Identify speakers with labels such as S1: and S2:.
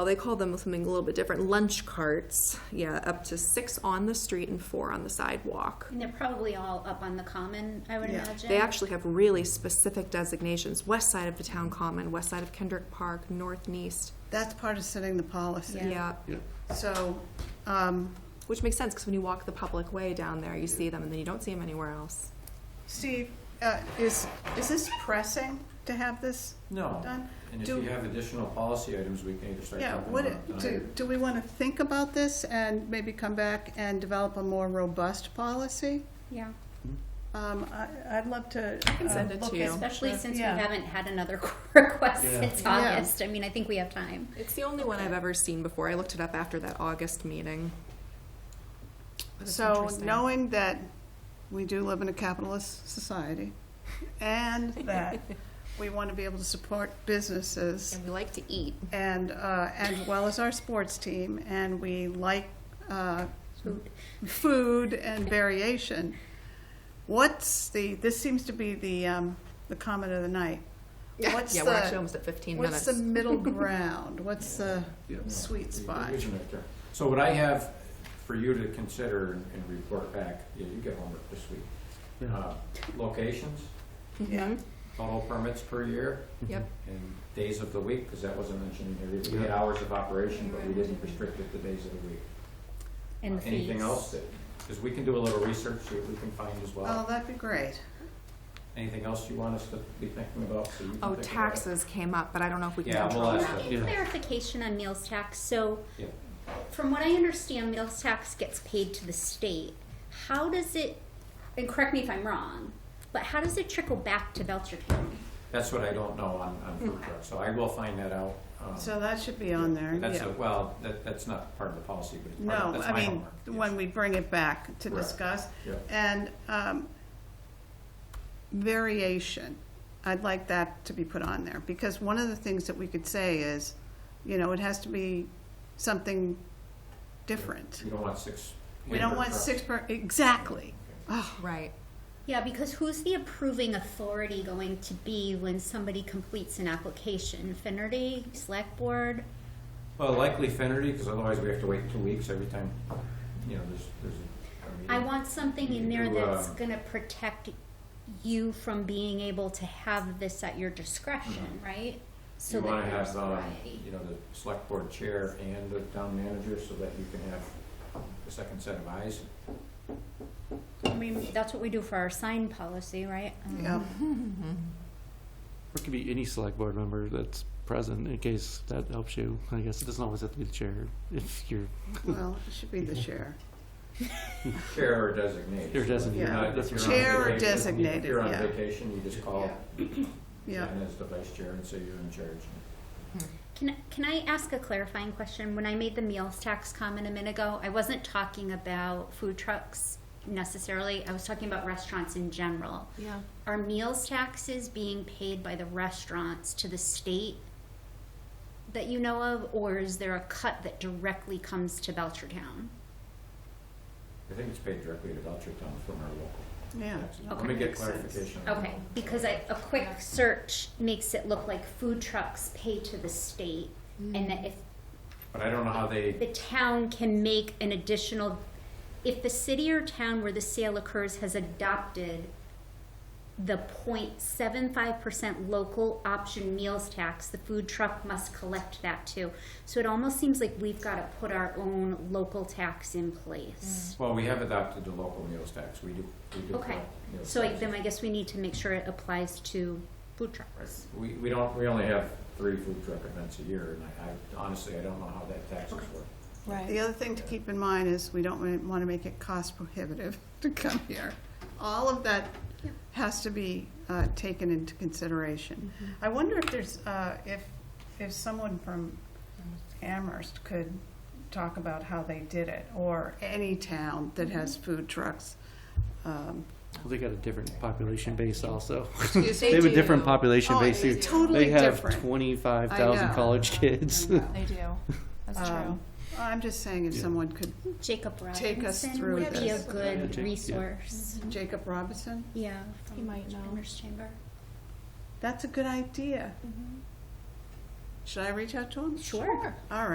S1: well, they call them something a little bit different, lunch carts. Yeah, up to six on the street and four on the sidewalk.
S2: And they're probably all up on the common, I would
S1: Yeah.
S2: imagine.
S1: They actually have really specific designations, west side of the town common, west side of Kendrick Park, north and east.
S3: That's part of setting the policy.
S2: Yeah.
S1: Yeah.
S4: Yeah.
S3: So, um,
S1: Which makes sense because when you walk the public way down there, you see them and then you don't see them anywhere else.
S3: Steve, uh, is, is this pressing to have this
S5: No,
S3: done?
S5: and if
S3: Do-
S5: you have additional policy items, we can either start
S3: Yeah,
S5: talking about it
S3: what,
S5: tonight.
S3: do, do we want to think about this and maybe come back and develop a more robust policy?
S2: Yeah,
S3: Um, I, I'd love to. I
S1: can send it to you.
S2: especially since
S3: Yeah.
S2: we haven't had another request
S5: Yeah.
S2: since
S3: Yeah.
S2: August. I mean, I think we have time.
S1: It's the only one I've ever seen before. I looked it up after that August meeting. But it's
S3: So
S1: interesting.
S3: knowing that we do live in a capitalist society and that we want to be able to support businesses
S1: And we like to eat.
S3: and, uh, as well as our sports team, and we like, uh, food and variation. What's the, this seems to be the, um, the comment of the night. What's
S1: yeah,
S3: the-
S1: we're actually almost at 15
S3: What's
S1: minutes.
S3: the middle ground? What's the
S4: Yeah.
S3: sweet spot?
S5: There isn't a term. So what I have for you to consider and- and report back, yeah, you get homework this week. Uh, Locations,
S3: Yeah.
S5: total permits per year,
S1: Mm-hmm. Yep.
S5: and days of the week, because that wasn't mentioned in here. We had hours of operation, but we didn't restrict it to days of the week. Uh,
S2: And
S5: Anything
S2: fees.
S5: else that, because we can do a little research, see what we can find as
S3: Oh,
S5: well.
S3: that'd be great.
S5: Anything else you want us to be thinking about? so
S1: Oh,
S5: you can think about it?
S1: taxes came up, but I don't know if we can
S5: Yeah,
S1: control
S5: we'll
S2: Can
S5: ask
S1: that.
S2: I get
S4: Yeah.
S2: clarification on meals tax? So,
S5: Yeah.
S2: from what I understand, meals tax gets paid to the state. How does it, and correct me if I'm wrong, but how does it trickle back to Belcher County?
S5: That's what I don't know on, on food trucks, so I will find that out. um,
S3: So that should be on there,
S5: That's,
S3: yeah.
S5: a- well, that, that's not part of the policy, but it's part of,
S3: No,
S5: that's
S3: I
S5: my
S3: mean,
S5: homework.
S3: when we bring it back to
S5: Correct.
S3: discuss.
S5: Yeah.
S3: And um, variation, I'd like that to be put on there, because one of the things that we could say is, you know, it has to be something different.
S5: We don't want six.
S3: We don't
S5: hamburger
S3: want
S5: trucks.
S3: six per, exactly. Oh,
S1: Right.
S2: Yeah, because who's the approving authority going to be when somebody completes an application? Finnerty, Select Board?
S5: Well, likely Finnerty, because otherwise we have to wait two weeks every time, you know, there's, there's a- a. meeting.
S2: I want something in there
S5: You, uh,
S2: that's gonna protect you from being able to have this at your discretion, right? So
S5: Mm-hmm. You
S2: that
S5: wanna
S2: there's
S5: have, um,
S2: variety.
S5: you know, the select board chair and the town manager, so that you can have a second set of eyes.
S3: I mean,
S2: That's what we do for our sign policy, right? Um,
S3: yeah,
S4: It could be any select board member that's present, in case that helps you. I guess it doesn't always have to be the chair, if you're,
S3: well, it should be the chair.
S5: Chair or designate.
S4: you're designated.
S3: Yeah.
S5: Not-
S4: That's
S5: if you're on
S4: right.
S3: Chair or
S5: vacation-
S3: designated,
S5: If you're on
S3: yeah.
S5: vacation, you just call
S3: Yeah,
S5: Ben as the vice chair and say you're in charge.
S2: Can, can I ask a clarifying question? When I made the meals tax comment a minute ago, I wasn't talking about food trucks necessarily. I was talking about restaurants in general.
S1: Yeah.
S2: Are meals taxes being paid by the restaurants to the state that you know of, or is there a cut that directly comes to Belchertown?
S5: I think it's paid directly to Belcher Town from our local.
S3: yeah.
S5: taxes.
S2: Okay.
S5: Let me get
S3: Makes sense.
S5: clarification. on
S2: Okay,
S5: that.
S2: because I, a quick search makes it look like food trucks pay to the state, and that if
S5: But I don't know how
S2: the
S5: they,
S2: town can make an additional, if the city or town where the sale occurs has adopted the 0.75 percent local option meals tax, the food truck must collect that too. So it almost seems like we've gotta put our own local tax in place.
S5: well, we have adopted the local meals tax, we do, we do.
S2: Okay,
S5: collect meals
S2: so I-
S5: taxes.
S2: then I guess we need to make sure it applies to food
S5: Right.
S2: trucks.
S5: We, we don't, we only have three food truck events a year, and I, I honestly, I don't know how that taxes work.
S3: The other thing to keep in mind is we don't want to make it cost prohibitive to come here. All of that
S2: Yeah.
S3: has to be uh, taken into consideration. I wonder if there's, uh, if, if someone from Amherst could talk about how they did it, or any town that has food trucks. Um,
S4: Well, They got a different population base also.
S1: Excuse
S4: They have a different population
S3: Oh,
S4: base.
S3: it's
S4: too.
S3: totally
S4: They have
S3: different.
S4: twenty-five
S3: I
S4: thousand
S3: know.
S4: college kids.
S1: They do. That's
S3: um, I'm just saying if
S4: Yeah.
S3: someone could,
S2: Jacob
S3: Take us
S2: Robinson
S3: through
S2: would be a
S3: this.
S4: Yeah,
S2: good
S4: Jacob, yeah.
S2: resource,
S3: Jacob Robinson,
S2: yeah.
S1: He
S2: from
S1: might know.
S2: Entrepreneurs Chamber.
S3: that's a good idea. Should I reach out to him?
S2: Sure.
S3: All right.